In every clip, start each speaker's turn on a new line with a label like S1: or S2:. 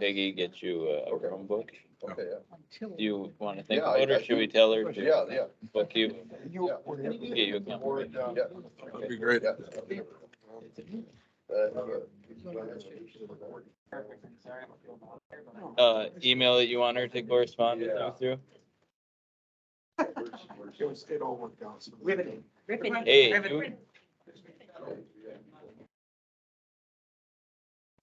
S1: Peggy get you a
S2: Okay.
S1: Chromebook?
S2: Okay, yeah.
S1: Do you want to think
S2: Yeah, I-
S1: about it,
S2: I
S1: or should we tell her
S2: yeah,
S1: to
S2: yeah,
S1: book you?
S2: yeah.
S1: Get you a Chromebook?
S2: Yeah.
S3: That'd be great.
S2: yeah. Uh,
S1: Uh, email that you want her to correspond with you through?
S4: Riveting. Riveting.
S1: Hey, you,
S4: Riveting.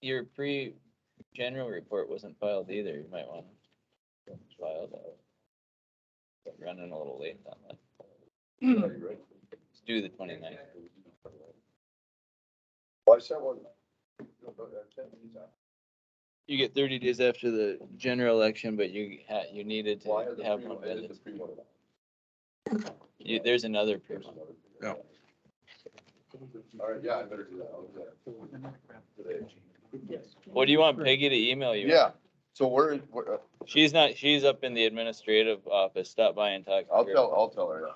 S1: your pre-general report wasn't filed either. You might want to file that. Running a little late on that. It's due the 29th.
S2: Why someone?
S1: You get thirty days after the general election, but you ha you needed
S2: Why are
S1: to
S2: the
S1: have
S2: pre-
S1: one.
S2: it is
S1: vetted.
S2: the pre-one?
S1: You, there's another
S2: There's
S1: person.
S2: another.
S3: Yeah.
S2: All right, yeah, I better do that. I'll do that today.
S1: What do you want Peggy to email you?
S2: Yeah, so where, where, uh,
S1: She's not, she's up in the administrative office. Stop by and talk. to
S2: I'll
S1: her.
S2: tell, I'll tell her.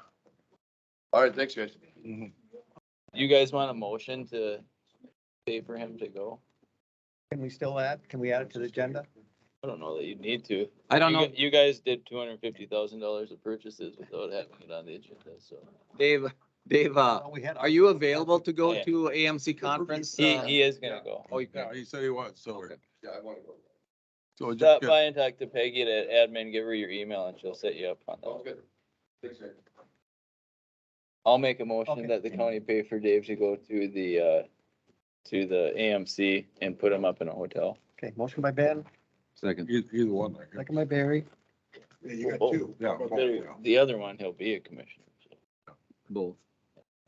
S2: All right, thanks, guys.
S1: You guys want a motion to pay for him to go?
S5: Can we still add, can we add it to the agenda?
S1: I don't know that you'd need to.
S6: I don't
S1: You
S6: know,
S1: gu- You guys did two hundred and fifty thousand dollars of purchases without having it on the agenda, so.
S6: Dave, Dave, uh,
S5: Well, we had-
S6: are you available to go
S1: Oh, Yeah.
S6: to AMC conference?
S1: He,
S6: uh,
S1: he is gonna go.
S6: Oh, you can.
S3: Yeah, he said he was, so, we're-
S2: Yeah, I want to go.
S3: so we just
S1: Stop
S3: get,
S1: by and talk to Peggy at admin, give her your email and she'll set you up on
S2: Sounds
S1: that.
S2: good. Thanks, guys.
S1: I'll make a
S5: Okay.
S1: motion that the county pay for Dave to go to the, uh, to the AMC and put him up in a hotel.
S5: Okay, motion by Ben,
S6: Second.
S3: e- either one. I guess.
S5: second by Barry.
S1: You got two.
S3: Yeah, both, yeah.
S1: The other one, he'll be a commissioner. so.
S6: Both.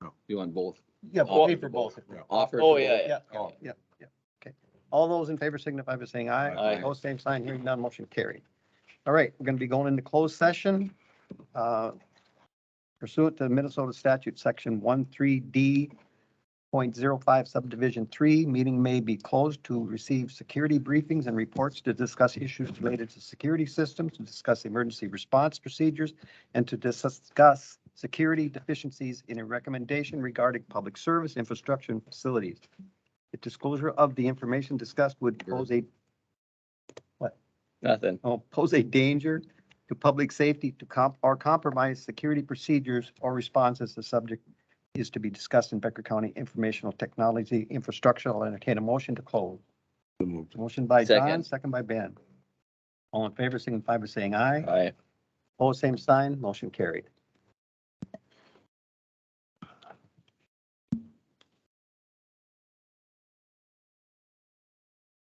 S3: No.
S6: You want both?
S5: Yeah,
S1: Oh,
S5: pay for both.
S6: Offer.
S1: Oh,
S6: for
S1: yeah,
S6: both?
S1: yeah.
S3: Oh,
S5: All those in favor signify by saying aye.
S1: Aye.
S5: Opposed, same sign, hearing none, motion carried. All right, we're gonna be going into closed session. uh, Pursuant to Minnesota statute, section one, three D point zero five subdivision three, meeting may be closed to receive security briefings and reports to discuss issues related to security systems, to discuss emergency response procedures, and to discuss security deficiencies in a recommendation regarding public service infrastructure and facilities. The disclosure of the information discussed would pose a
S1: Nothing.
S5: oh, pose a danger to public safety to comp, or compromise security procedures or responses. The subject is to be discussed in Becker County Informational Technology Infrastructure. I'll entertain a motion to close. Motion by John,
S1: Second.
S5: second by Ben. All in favor, signify by saying aye.
S1: Aye.
S5: Opposed, same sign, motion carried.